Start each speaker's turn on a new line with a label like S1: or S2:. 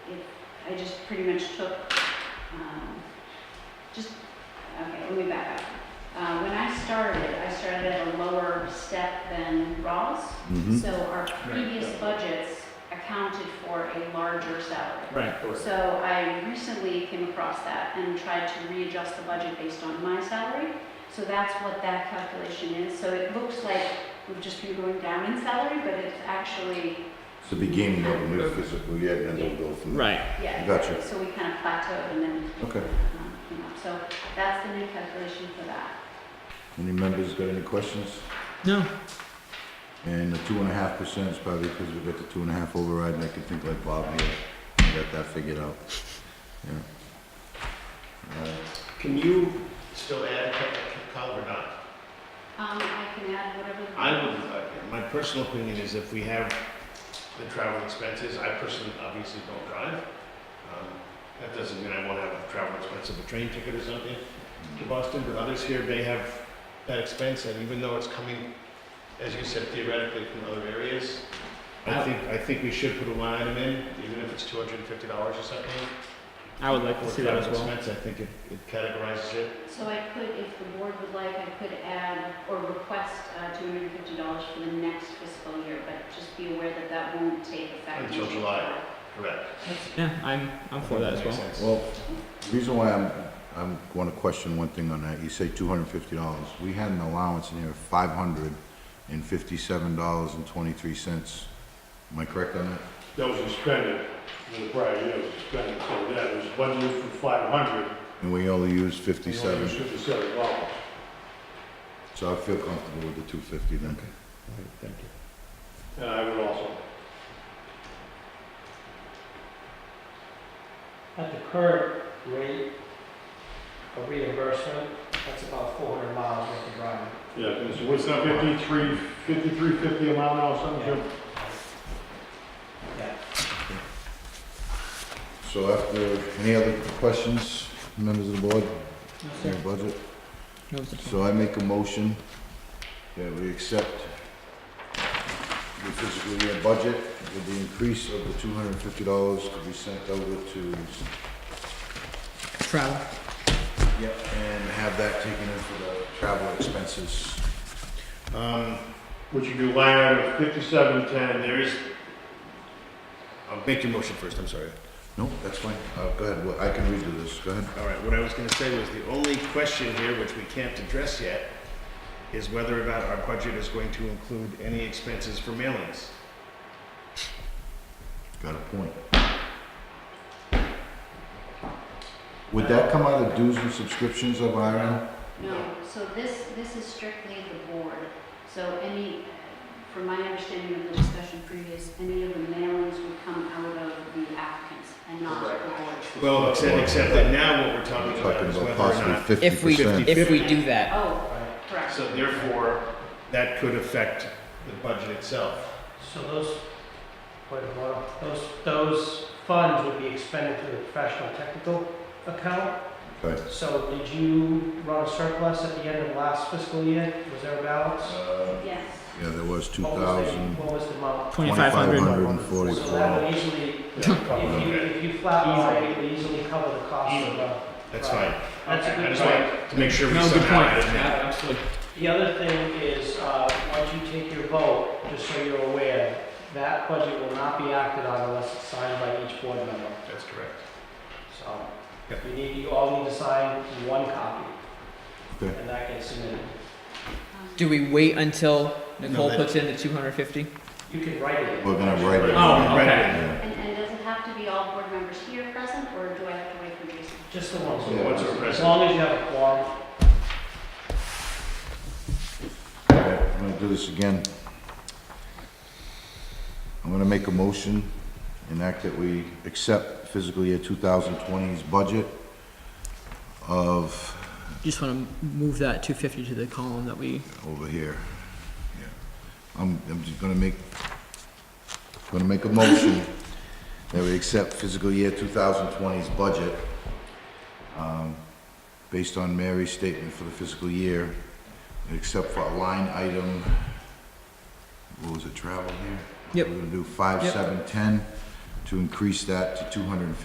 S1: I just pretty much took, um, just, okay, let me back up. Uh, when I started, I started at a lower step than Raw's.
S2: Mhm.
S1: So our previous budgets accounted for a larger salary.
S3: Right.
S1: So I recently came across that and tried to readjust the budget based on my salary. So that's what that calculation is. So it looks like we've just been going down in salary, but it's actually,
S2: It's the beginning of a new physical year, and then we'll go from there.
S3: Right.
S1: yeah.
S2: Gotcha.
S1: So we kind of plateaued and then
S2: Okay.
S1: um, came up. So that's the new calculation for that.
S2: Any members got any questions?
S3: No.
S2: And the two and a half percent is probably because we got the two and a half override, and I can think like Bob here, I got that figured out. Yeah. Uh,
S4: Can you still add a cup of color or not?
S1: Um, I can add whatever.
S4: I would, uh, my personal opinion is if we have the travel expenses, I personally obviously don't drive. Um, That doesn't mean I won't have a travel expense of a train ticket or something to Boston, but others here may have that expense, and even though it's coming, as you said theoretically, from other areas, I think, I think we should put a line item in, even if it's two hundred and fifty dollars or something.
S3: I would like to
S4: for
S3: see that as
S4: travel
S3: well.
S4: expense. I think it it categorizes it.
S1: So I could, if the board would like, I could add or request uh, $250 for the next fiscal year, but just be aware that that won't take effect.
S4: Until July. Correct.
S3: Yeah, I'm I'm for that as
S4: Makes
S3: well.
S4: sense.
S2: Well, the reason why I'm, I'm going to question one thing on that, you say two hundred and fifty dollars. We had an allowance in here of five hundred and fifty-seven dollars and twenty-three cents. Am I correct on that?
S5: that was expended, in the prior year was expended, so that was budgeted for five hundred.
S2: And we only used fifty-seven,
S5: Fifty-seven dollars.
S2: so I feel comfortable with the two fifty then.
S3: All right, thank you.
S5: And I would also,
S6: At the current rate of reimbursement, that's about four hundred miles worth of driving.
S5: yeah, it's, what's that, fifty-three, fifty-three fifty a mile now, something, Jim?
S6: Yeah.
S2: So after, any other questions, members of the board, on your budget? So I make a motion that we accept the fiscal year budget with the increase of the two hundred and fifty dollars to be sent over to,
S3: Travel.
S2: yep, and have that taken in for the travel expenses.
S4: Um,
S5: Which you do line item fifty-seven ten,
S4: There is, I'll make your motion first, I'm sorry.
S2: No, that's fine. Uh, go ahead, Well, I can redo this, go ahead.
S4: All right, what I was gonna say was the only question here, which we can't address yet, is whether or not our budget is going to include any expenses for mailings.
S2: Got a point. Would that come out of dues and subscriptions of Iron?
S1: No, so this, this is strictly the board. So any, from my understanding of the discussion previous, any of the mailings would come out of the applicants and not the board.
S4: Well, except, except that now what we're talking about
S2: Talking
S4: is
S2: about
S4: whether or
S2: possibly
S4: not,
S2: fifty
S7: If we,
S2: percent.
S7: if we do that,
S1: Oh, correct.
S4: so therefore, that could affect the budget itself.
S6: So those, wait a moment, those, those funds would be expended through the professional technical account.
S2: Okay.
S6: So did you run a surplus at the end of last fiscal year? Was there a balance?
S2: Uh,
S1: Yes.
S2: Yeah, there was two
S6: What was the-
S2: thousand,
S6: What was the amount?
S2: twenty-five hundred
S3: 2500.
S2: and
S6: So
S2: forty-four.
S6: that would easily, if you,
S4: Okay.
S6: if you flatline, it would easily cover the cost of the.
S4: That's
S6: Right.
S4: fine.
S6: That's a
S4: I
S6: good
S4: just
S6: point.
S4: want to make sure we
S3: No, good
S4: somehow
S3: point.
S4: added that.
S3: absolutely.
S6: The other thing is, uh, once you take your vote, just so you're aware, that budget will not be acted on unless it's signed by each board member.
S4: That's correct.
S6: So
S4: Yep.
S6: you need, you all need to sign one copy.
S2: Okay.
S6: And that gets submitted.
S7: do we wait until Nicole
S4: that-
S7: puts in the 250?
S6: You can write it.
S2: We're gonna write it.
S3: Oh,
S4: Right.
S3: okay.
S2: Yeah.
S1: And, and does it have to be all board members here present, or do I have to wait for Jason?
S6: Just the ones.
S4: So once we're
S6: As
S4: present,
S6: long as you have a quorum.
S2: Okay, I'm gonna do this again. I'm gonna make a motion, enact that we accept fiscal year 2020's budget of,
S7: Just want to move that 250 to the column that we.
S2: over here. Yeah. I'm, I'm just gonna make, gonna make a motion that we accept fiscal year 2020's budget, um, based on Mary's statement for the fiscal year, except for a line item, what was it, travel here?
S7: Yep.
S2: We're gonna do five,
S7: Yep.
S2: seven, ten, to increase that to two hundred and fifty